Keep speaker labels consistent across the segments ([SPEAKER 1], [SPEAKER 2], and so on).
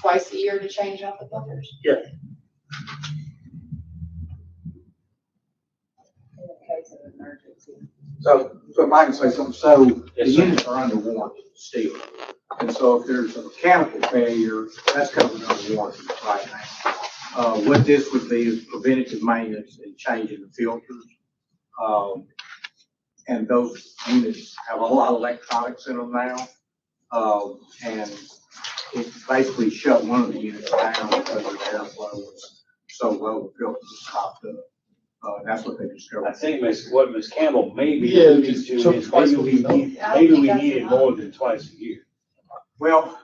[SPEAKER 1] twice a year to change out the filters.
[SPEAKER 2] in the case of emergency.
[SPEAKER 3] So, so if I can say something, so the
[SPEAKER 4] Yes, sir.
[SPEAKER 3] units are under warranty still. And so if there's a mechanical failure, that's covered under warranty right now. Uh, what this would be is preventative maintenance and changing the filters. Um, and those units have a lot of electronics in them now. Um, and it basically shut one of the units down because the airflow was so low, the filters stopped up. Uh, that's what they discovered.
[SPEAKER 4] I think Miss, what Miss Campbell may be
[SPEAKER 5] Yeah,
[SPEAKER 4] alluding
[SPEAKER 5] just
[SPEAKER 4] to
[SPEAKER 5] took
[SPEAKER 4] is
[SPEAKER 5] twice
[SPEAKER 4] maybe
[SPEAKER 5] a
[SPEAKER 4] we
[SPEAKER 5] week, though.
[SPEAKER 4] need,
[SPEAKER 1] I don't
[SPEAKER 4] maybe
[SPEAKER 1] think
[SPEAKER 4] we
[SPEAKER 1] that's
[SPEAKER 4] need it
[SPEAKER 1] enough.
[SPEAKER 4] more than twice a year.
[SPEAKER 3] Well,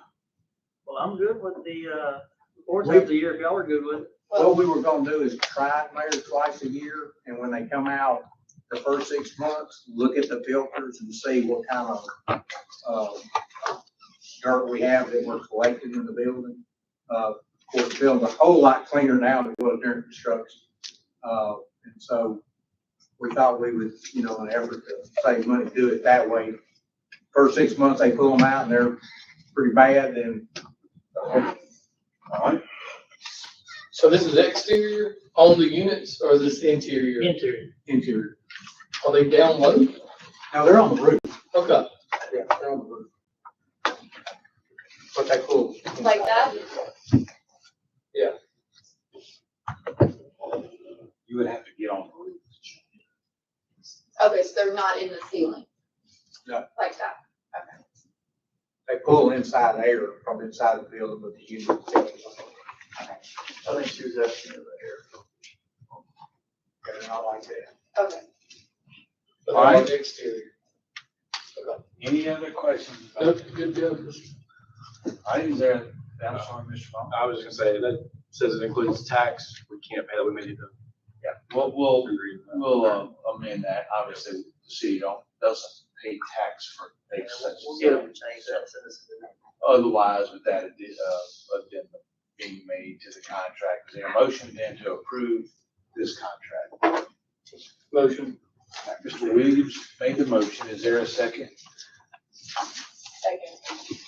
[SPEAKER 6] Well, I'm good with the, uh, fourth of the year, if y'all are good with it.
[SPEAKER 3] What we were gonna do is try it, Mayor, twice a year, and when they come out, the first six months, look at the filters and see what kind of, uh, dirt we have that we're collecting in the building. Uh, of course, the building's a whole lot cleaner now than it was during construction. Uh, and so we thought we would, you know, in an effort to save money, do it that way. First six months, they pull them out and they're pretty bad, then
[SPEAKER 4] All right,
[SPEAKER 5] So this is exterior on the units or is this interior?
[SPEAKER 6] Interior.
[SPEAKER 3] interior.
[SPEAKER 5] Are they down low?
[SPEAKER 3] Now, they're on the roof.
[SPEAKER 5] Okay.
[SPEAKER 3] Yeah, they're on the roof. But they cool.
[SPEAKER 1] Like that?
[SPEAKER 4] you would have to get on.
[SPEAKER 1] Okay, so they're not in the ceiling?
[SPEAKER 3] No.
[SPEAKER 1] Like that? Okay.
[SPEAKER 3] They pull inside air from inside the building, but the unit.
[SPEAKER 6] I think she was asking about
[SPEAKER 3] And I like that.
[SPEAKER 1] Okay.
[SPEAKER 5] But they're on the exterior.
[SPEAKER 4] Any other questions? about
[SPEAKER 5] Good,
[SPEAKER 4] it?
[SPEAKER 5] good, good.
[SPEAKER 4] All right, is there, I'm sorry, Mr. Vaughn.
[SPEAKER 7] I was gonna say, that says it includes tax, we can't pay that, we may need to.
[SPEAKER 8] Well, we'll,
[SPEAKER 7] agree with that.
[SPEAKER 8] we'll uh, amend that, obviously, the city don't, doesn't pay tax for things such
[SPEAKER 6] We'll
[SPEAKER 8] as
[SPEAKER 6] get them
[SPEAKER 8] that.
[SPEAKER 6] to change that citizen.
[SPEAKER 8] Otherwise, with that, addi- uh, addendum being made to the contract, is there a motion then to approve this contract?
[SPEAKER 5] Motion.
[SPEAKER 8] Mr. Williams made the motion, is there a second?
[SPEAKER 2] Second.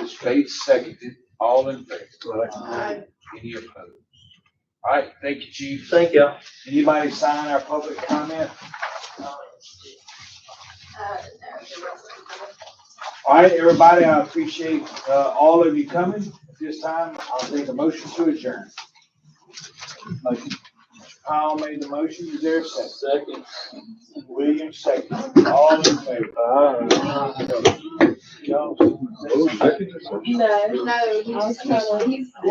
[SPEAKER 8] Ms. Bates seconded, all in favor?
[SPEAKER 1] Aye.
[SPEAKER 8] Any opposed? All right, thank you, chief.
[SPEAKER 6] Thank y'all.
[SPEAKER 4] Anybody sign our public
[SPEAKER 1] Uh,
[SPEAKER 4] comment?
[SPEAKER 1] no, there wasn't.
[SPEAKER 4] All right, everybody, I appreciate, uh, all of you coming. At this time, I'll take a motion to adjourn. Motion. Powell made the motion, is there a second?
[SPEAKER 5] Second.
[SPEAKER 4] Williams second, all in favor? Jones.
[SPEAKER 2] No,
[SPEAKER 1] No, he's-
[SPEAKER 2] he's